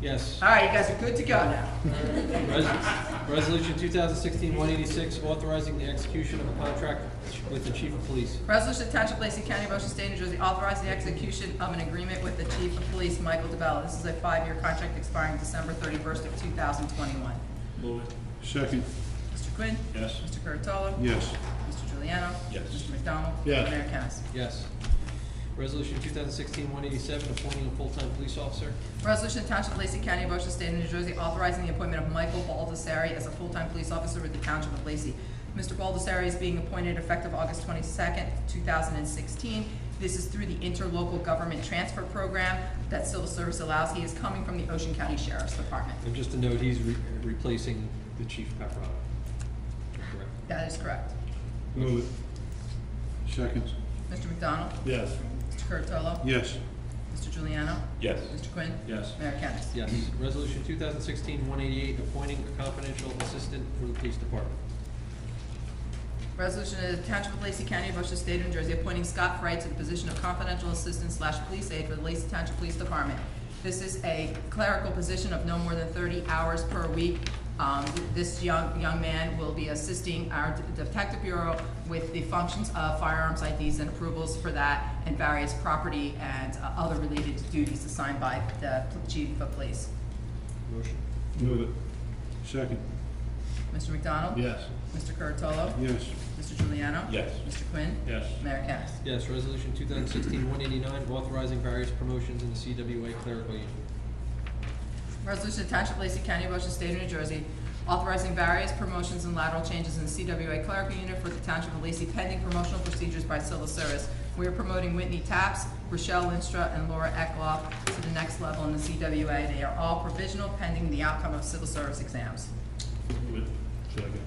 Yes. All right, you guys are good to go now. Res- Resolution 2016-186, authorizing the execution of a contract with the chief of police. Resolution to Township of Lacey County, Ocean State, New Jersey, authorizing the execution of an agreement with the Chief of Police, Michael DeBella. This is a five-year contract expiring December thirty-first of two thousand twenty-one. Move it. Second, Mr. Quinn? Yes. Mr. Curatolo? yes. Mr. Juliano? Yes. Mr. McDonald? Yes. Mayor Kennas. Yes. Resolution 2016-187, appointing a full-time police officer. Resolution to Township of Lacey County, Ocean State, New Jersey, authorizing the appointment of Michael Baldessari as a full-time police officer with the Township of Lacey. Mr. Baldessari is being appointed effective August twenty-second, two thousand and sixteen. This is through the interlocal government transfer program that civil service allows. He is coming from the Ocean County Sheriff's Department. And just to note, he's re- replacing the chief Paparotto. Correct. That is correct. Move it. Second, Mr. McDonald? Yes. Mr. Curatolo? yes. Mr. Juliano? Yes. Mr. Quinn? Yes. Mayor Kennas. Yes. Resolution 2016-188, appointing a confidential assistant for the police department. Resolution of the Township of Lacey County, Ocean State, New Jersey, appointing Scott Frey to the position of confidential assistant slash police aide for the Lacey Township Police Department. This is a clerical position of no more than thirty hours per week. Um, this young, young man will be assisting our detective bureau with the functions of firearms IDs and approvals for that and various property and uh, other related duties assigned by the chief of police. Motion. Move it. Second, Mr. McDonald? Yes. Mr. Curatolo? yes. Mr. Juliano? Yes. Mr. Quinn? Yes. Mayor Kennas. Yes. Resolution 2016-189, authorizing various promotions in the CWA clerical union. Resolution to Township of Lacey County, Ocean State of New Jersey, authorizing various promotions and lateral changes in the CWA clerical unit for the Township of Lacey pending promotional procedures by civil service. We are promoting Whitney Taps, Rochelle Linstra, and Laura Eckloff to the next level in the CWA. They are all provisional pending the outcome of civil service exams. Move it. Second.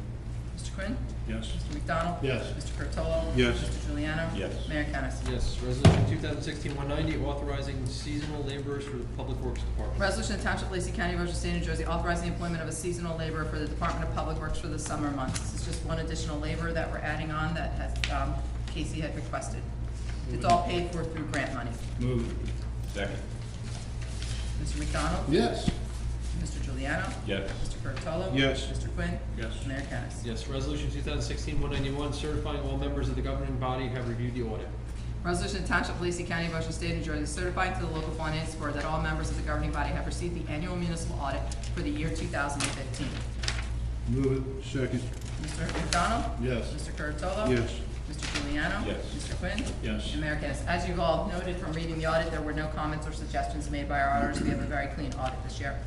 Mr. Quinn? Yes. Mr. McDonald? Yes. Mr. Curtolo. Yes. Mr. Juliano? Yes. Mayor Kennas. Yes. Resolution 2016-190, authorizing seasonal laborers for the public works department. Resolution of Township of Lacey County, Ocean State, New Jersey, authorizing the employment of a seasonal laborer for the Department of Public Works for the summer months. This is just one additional laborer that we're adding on that has, um, Casey had requested. It's all paid for through grant money. Move it. Second. Mr. McDonald? Yes. Mr. Juliano? Yes. Mr. Curatolo? Yes. Mr. Quinn? Yes. Mayor Kennas. Yes. Resolution 2016-191, certifying all members of the governing body have reviewed the audit. Resolution of Township of Lacey County, Ocean State, New Jersey, certifying to the local finance board that all members of the governing body have received the annual municipal audit for the year two thousand and fifteen. Move it. Second, Mr. McDonald? Yes. Mr. Curatolo? yes. Mr. Juliano? Yes. Mr. Quinn? Yes. And Mayor Kennas. As you've all noted from reading the audit, there were no comments or suggestions made by our auditors. We have a very clean audit this year.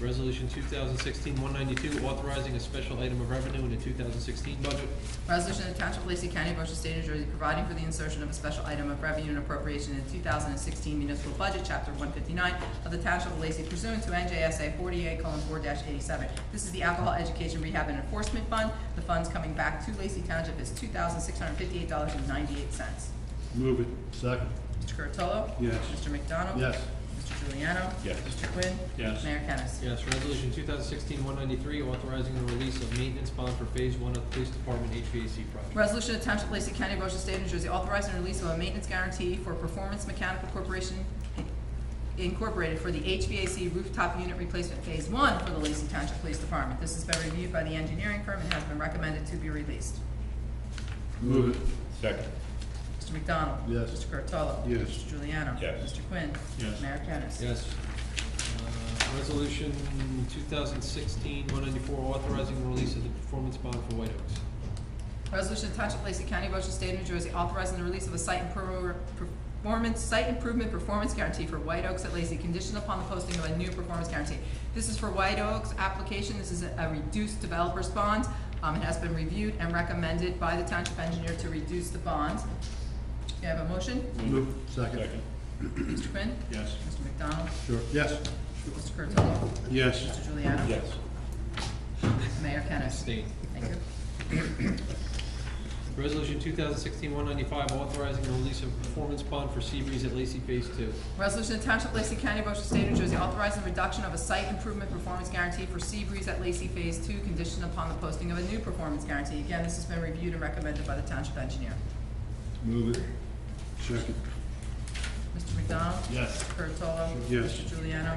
Resolution 2016-192, authorizing a special item of revenue in the 2016 budget. Resolution of Township of Lacey County, Ocean State, New Jersey, providing for the insertion of a special item of revenue and appropriation in the two thousand and sixteen municipal budget, chapter one fifty-nine of the Township of Lacey pursuant to NJSA forty-eight four eighty-seven. This is the Alcohol Education Rehab and Enforcement Fund. The funds coming back to Lacey Township is two thousand six hundred fifty-eight dollars and ninety-eight cents. Move it, Second. Mr. Curatolo? Yes. Mr. McDonald? Yes. Mr. Juliano? Yes. Mr. Quinn? Yes. Mayor Kennas. Yes, resolution 2016-193, authorizing the release of maintenance bond for Phase 1 of the Police Department HVAC project. Resolution of Township of Lacey County, Ocean State, New Jersey, authorizing the release of a maintenance guarantee for Performance Mechanical Corporation Incorporated for the HVAC rooftop unit replacement phase one for the Lacey Township Police Department. This has been reviewed by the engineering firm and has been recommended to be released. move it, Second. Mr. McDonald? Yes. Mr. Curatolo? Yes. Mr. Juliano? Yes. Mr. Quinn? Yes. Mayor Kennas. Yes. Uh, Resolution 2016-194, authorizing the release of the performance bond for White Oaks. Resolution to Township of Lacey County, Ocean State, New Jersey, authorizing the release of a site impro- performance, site improvement performance guarantee for White Oaks at Lacey, conditioned upon the posting of a new performance guarantee. This is for White Oaks application, this is a- a reduced developer's bond. Um, it has been reviewed and recommended by the township engineer to reduce the bond. Do you have a motion? move it. Second. Mr. Quinn? Yes. Mr. McDonald? Sure. Yes. Mr. Curatolo? Yes. Mr. Juliano? Yes. Mayor Kennas? Abstain. Thank you. Resolution 2016-195, authorizing the release of performance bond for Seabreeze at Lacey Phase 2. Resolution to Township of Lacey County, Ocean State, New Jersey, authorizing reduction of a site improvement performance guarantee for Seabreeze at Lacey Phase Two, conditioned upon the posting of a new performance guarantee. Again, this has been reviewed and recommended by the township engineer. Move it. Second, Mr. McDonald? Yes. Mr. Curatolo? Yes. Mr. Juliano?